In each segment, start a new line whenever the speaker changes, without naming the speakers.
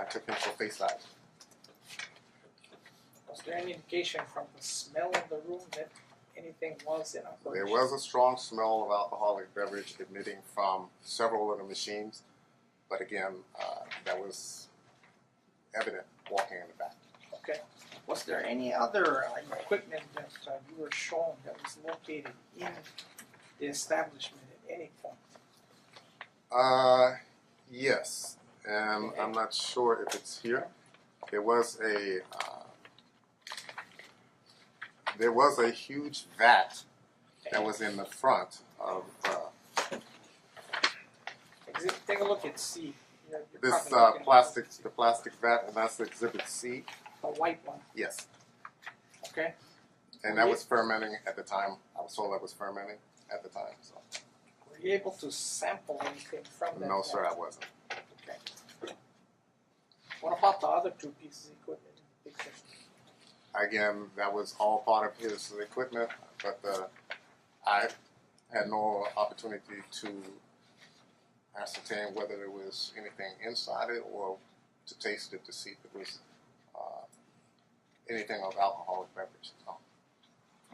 applicants will face that.
Was there any indication from the smell of the room that anything was in operation?
There was a strong smell of alcoholic beverage emitting from several of the machines, but again, uh, that was evident walking in the back.
Okay, was there any other uh, equipment that uh, you were shown that was located in the establishment at any point?
Uh, yes, and I'm not sure if it's here. There was a uh, there was a huge vat that was in the front of uh,
Exhibit, take a look at C, you're you're probably
this uh,
looking at
plastic the plastic vat, and that's Exhibit C.
The white one,
Yes,
okay,
and that was fermenting at the time. I was told that was fermenting at the time. So
were you able to sample anything from that?
no, sir,
vat?
I wasn't.
Okay. What about the other two pieces of equipment in the picture?
Again, that was all part of his equipment, but uh, I had no opportunity to ascertain whether there was anything inside it or to taste it to see if it was uh, anything of alcoholic beverage. No.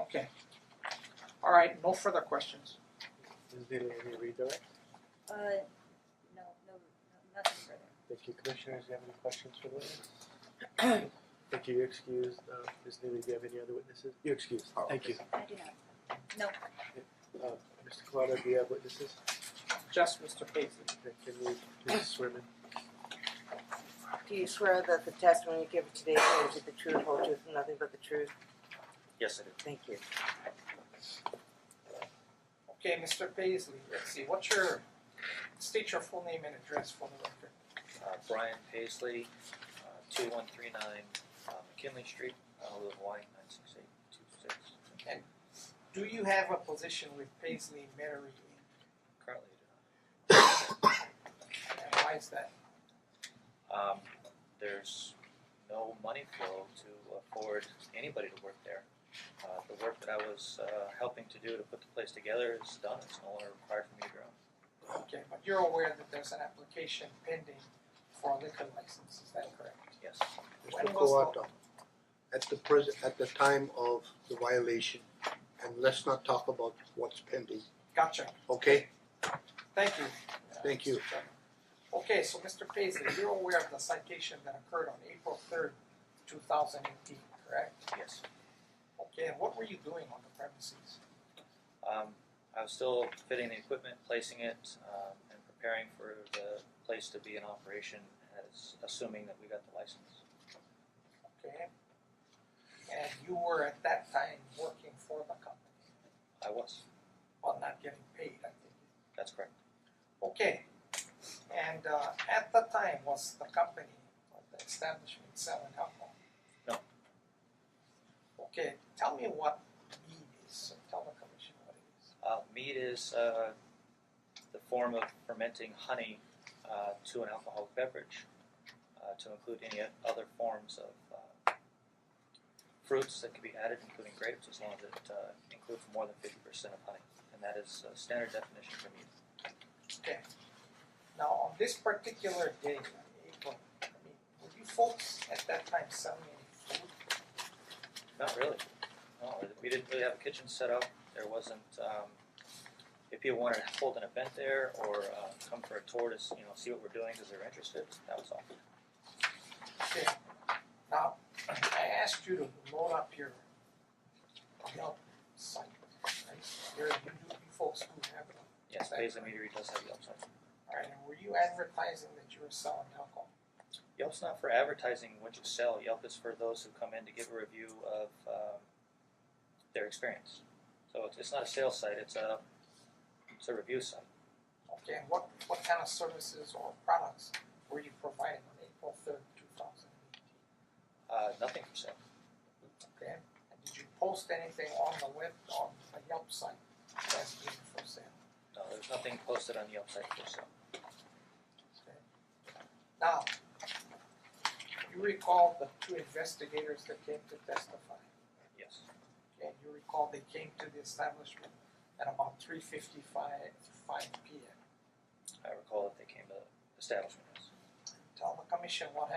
Okay. All right, no further questions.
Is there any redirect?
Uh, no, no, no- nothing further.
Thank you, commissioners, do you have any questions for this? Thank you, you're excused, uh, Ms. Neely, do you have any other witnesses? You're excused,
Oh,
thank you.
I do not. No,
Uh, Mr. Collado, do you have witnesses?
Just Mr. Paisley.
Then Can we, please swear in?
Do you swear that the testimony you give today is the truth, whole truth, and nothing but the truth?
Yes, I do.
Thank you.
Okay, Mr. Paisley, let's see, what's your, state your full name and address for the record.
Uh, Brian Paisley, uh, two one three nine, uh, McKinley Street, Honolulu, Hawaii, nine six eight two six.
Do you have a position with Paisley and Metairie, Inc.,
Currently, I
and why is that?
do not. Um, there's no money flow to afford anybody to work there. Uh, the work that I was, uh, helping to do to put the place together is done, it's no longer required for me to grow.
Okay, but you're aware that there's an application pending for a liquor license, is that correct?
Yes,
When
Mr.
was
Kawata, at the present, at the time of the violation, and let's not talk about what's pending,
Gotcha,
okay?
thank you. uh,
Thank you.
Mr. Chairman. Okay, so Mr. Paisley, you're aware of the citation that occurred on April third, two thousand eighteen, correct?
yes.
Okay, and what were you doing on the premises?
Um, I was still fitting the equipment, placing it, um, and preparing for the place to be in operation as, assuming that we got the license.
Okay. And you were at that time working for the company,
I was,
but not getting paid, I think.
that's correct.
Okay. And uh at the time was the company or the establishment selling alcohol?
No.
Okay, tell me what mead is, or tell the commission what it is.
Uh, mead is uh, the form of fermenting honey uh, to an alcoholic beverage, uh, to include any other forms of uh, fruits that can be added, including grapes, as long as it uh, includes more than 50% of honey. And that is a standard definition for mead.
Okay. Now, on this particular day, April, I mean, were you folks at that time selling any food?
Not really. No, we didn't really have a kitchen set up. There wasn't, um, if people wanted to hold an event there or uh, come for a tour to s- you know, see what we're doing because they're interested, that was all.
Okay. Now, I asked you to load up your Yelp site, right? There, you do, you folks do have it.
Yes, Basil Meadery does have Yelp signs.
Alright, and were you advertising that you were selling alcohol?
Yelp's not for advertising what you sell. Yelp is for those who come in to give a review of um, their experience. So it's, it's not a sales site. It's a it's a review site.
Okay, and what, what kind of services or products were you providing on April third, two thousand and eighteen?
Uh, nothing for sale.
Okay, and did you post anything on the web, on the Yelp site as being for sale?
No, there's nothing posted on Yelp site for sale.
Okay. Now, you recall the two investigators that came to testify,
Yes,
okay, you recall they came to the establishment at about three fifty-five, five P M.
I recall that they came to the establishment. Yes.
Tell the commission what happened